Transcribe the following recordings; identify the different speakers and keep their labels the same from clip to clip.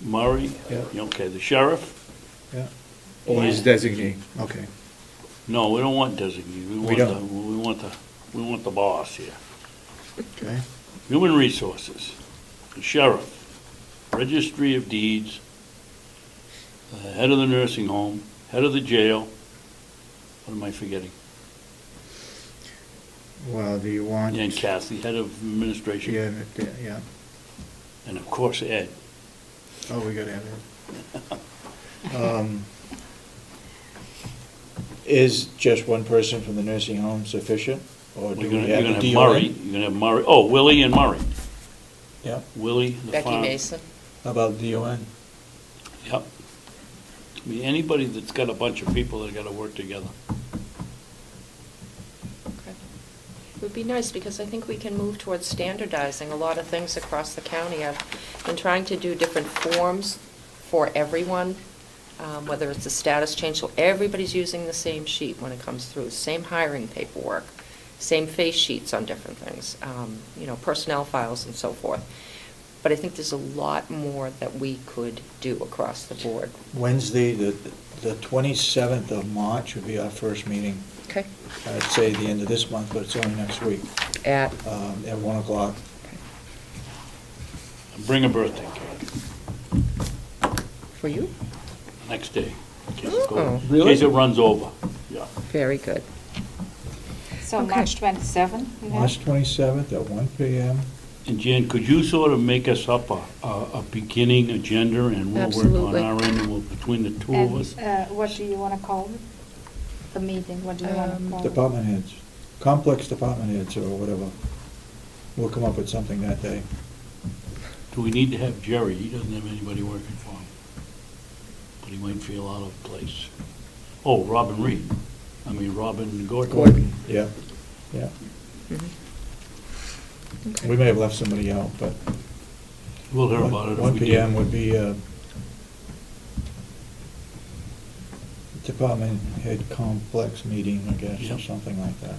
Speaker 1: Murray,
Speaker 2: Yeah.
Speaker 1: okay, the sheriff.
Speaker 2: yeah.
Speaker 3: Or his designee.
Speaker 2: Okay.
Speaker 1: No, we don't want designee, we want the,
Speaker 2: don't.
Speaker 1: we want the, we want the boss here.
Speaker 2: Okay.
Speaker 1: Human Resources, the Sheriff, Registry of Deeds, uh, Head of the Nursing Home, Head of the Jail. What am I forgetting?
Speaker 2: Well, do you want?
Speaker 1: And Kathy, Head of Administration.
Speaker 2: Yeah, yeah, yeah.
Speaker 1: And of course, Ed.
Speaker 2: Oh, we gotta have her. Um,
Speaker 3: Is just one person from the nursing home sufficient, or do
Speaker 1: We're
Speaker 3: we
Speaker 1: gonna, you're
Speaker 3: have
Speaker 1: gonna
Speaker 3: a
Speaker 1: have
Speaker 3: deal?
Speaker 1: Murray, you're gonna have Murray, oh, Willie and Murray.
Speaker 3: Yeah,
Speaker 1: Willie, the
Speaker 4: Becky
Speaker 1: farm.
Speaker 4: Mason.
Speaker 3: how about DON?
Speaker 1: Yep. I mean, anybody that's got a bunch of people that gotta work together.
Speaker 4: Okay. It would be nice, because I think we can move towards standardizing a lot of things across the county. I've been trying to do different forms for everyone, um, whether it's a status change, so everybody's using the same sheet when it comes through, same hiring paperwork, same face sheets on different things, um, you know, personnel files and so forth. But I think there's a lot more that we could do across the board.
Speaker 3: Wednesday, the, the 27th of March would be our first meeting.
Speaker 4: Okay.
Speaker 3: I'd say the end of this month, but it's only next week,
Speaker 4: At,
Speaker 3: um, at 1 o'clock.
Speaker 1: Bring a birthday cake,
Speaker 4: for you?
Speaker 1: next day. in case it goes-
Speaker 4: Oh.
Speaker 1: In case it runs over, yeah.
Speaker 4: Very good.
Speaker 5: So
Speaker 4: Okay.
Speaker 5: March 27? you know?
Speaker 3: March 27th at 1 PM.
Speaker 1: And Jan, could you sort of make us up a, a, a beginning agenda and we'll work on
Speaker 4: Absolutely.
Speaker 1: our end and we'll, between the two of us?
Speaker 5: And uh, what do you want to call it? The meeting, what do you want
Speaker 4: Um,
Speaker 5: to call it?
Speaker 3: Department heads, complex department heads or whatever. We'll come up with something that day.
Speaker 1: Do we need to have Jerry? He doesn't have anybody working for him. But he might feel out of place. Oh, Robin Reed. I mean, Robin Gordon.
Speaker 4: Gordon.
Speaker 3: Yeah, yeah.
Speaker 4: Okay.
Speaker 3: We may have left somebody out, but.
Speaker 1: We'll hear about it if we
Speaker 3: 1
Speaker 1: did.
Speaker 3: PM would be uh, department head complex meeting, I guess, or
Speaker 1: Yep.
Speaker 3: something like that.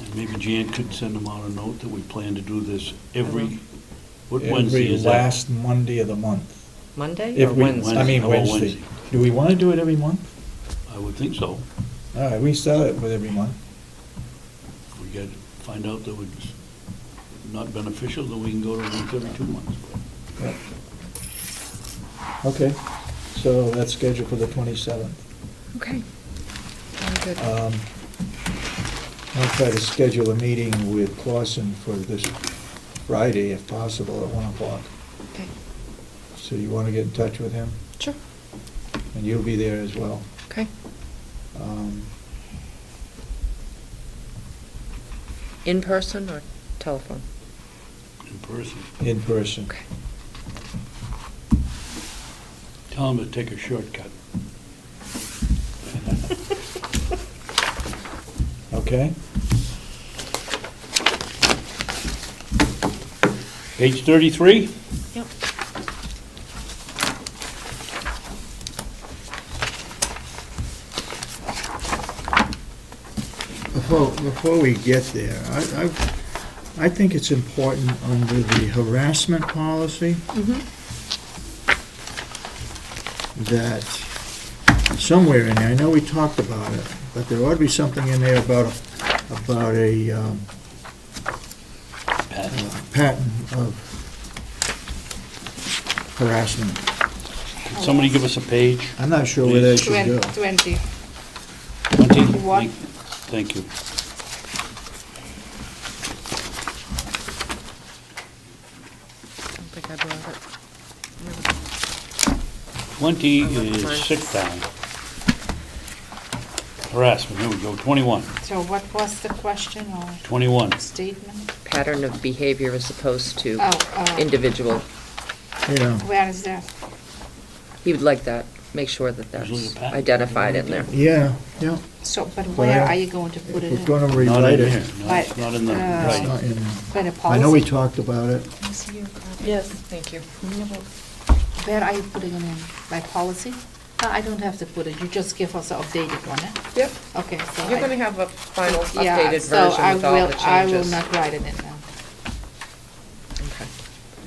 Speaker 1: And maybe Jan could send them out a note that we plan to do this every, what Wednesday
Speaker 3: Every
Speaker 1: is that?
Speaker 3: last Monday of the month.
Speaker 4: Monday
Speaker 3: If
Speaker 4: or
Speaker 3: we,
Speaker 4: Wednesday?
Speaker 3: I mean,
Speaker 1: Oh,
Speaker 3: Wednesday.
Speaker 1: Wednesday.
Speaker 3: Do we want to do it every month?
Speaker 1: I would think so.
Speaker 3: All right, we start it with every month.
Speaker 1: We get, find out that it's not beneficial, then we can go to once every two months.
Speaker 3: Yep. Okay, so that's scheduled for the 27th.
Speaker 4: Okay.
Speaker 1: Uh,
Speaker 4: Very good.
Speaker 3: Um, I'll try to schedule a meeting with Clausen for this Friday, if possible, at 1 o'clock.
Speaker 4: Okay.
Speaker 3: So you want to get in touch with him,
Speaker 4: Sure.
Speaker 3: and you'll be there as well.
Speaker 4: Okay.
Speaker 3: Um,
Speaker 4: In person or telephone?
Speaker 1: in person.
Speaker 3: In person.
Speaker 4: Okay.
Speaker 1: Tell them to take a shortcut.
Speaker 3: Okay?
Speaker 1: Page thirty-three?
Speaker 4: Yep.
Speaker 2: Before, before we get there, I, I, I think it's important under the harassment policy that somewhere in there, I know we talked about it, but there ought to be something in there about, a- about a, um,
Speaker 1: Pat?
Speaker 2: uh, pattern of harassment.
Speaker 1: Could somebody give us a page?
Speaker 2: I'm not sure where that should go.
Speaker 5: Twen- 20.
Speaker 1: Monty?
Speaker 5: What?
Speaker 1: Thank you.
Speaker 4: I don't think I brought it.
Speaker 1: Twenty
Speaker 4: I left mine.
Speaker 1: is sick time. Harassment, here we go, twenty-one.
Speaker 5: So what was the question or
Speaker 1: Twenty-one.
Speaker 5: statement?
Speaker 4: Pattern of behavior as opposed to
Speaker 5: Oh, uh,
Speaker 4: individual.
Speaker 2: Yeah,
Speaker 5: where is that?
Speaker 4: He would like that. Make sure that
Speaker 1: Usually
Speaker 4: that's
Speaker 1: the pattern.
Speaker 4: identified in there.
Speaker 2: yeah, yeah.
Speaker 5: So, but
Speaker 2: Well,
Speaker 5: where are you going to put it
Speaker 2: We're
Speaker 5: in?
Speaker 2: gonna
Speaker 1: Not in
Speaker 2: rewrite
Speaker 1: here,
Speaker 2: it.
Speaker 1: no, it's not in the,
Speaker 5: But, uh,
Speaker 2: It's
Speaker 1: right.
Speaker 2: not in there.
Speaker 5: Where the
Speaker 2: I know we
Speaker 5: policy,
Speaker 2: talked about it.
Speaker 4: Yes. Thank you.
Speaker 5: where are you putting it in? By policy? No, I don't have to put it, you just give us the updated one, eh?
Speaker 4: Yep.
Speaker 5: Okay, so. I-
Speaker 4: have a final
Speaker 5: Yeah, so I will. I will not write it in.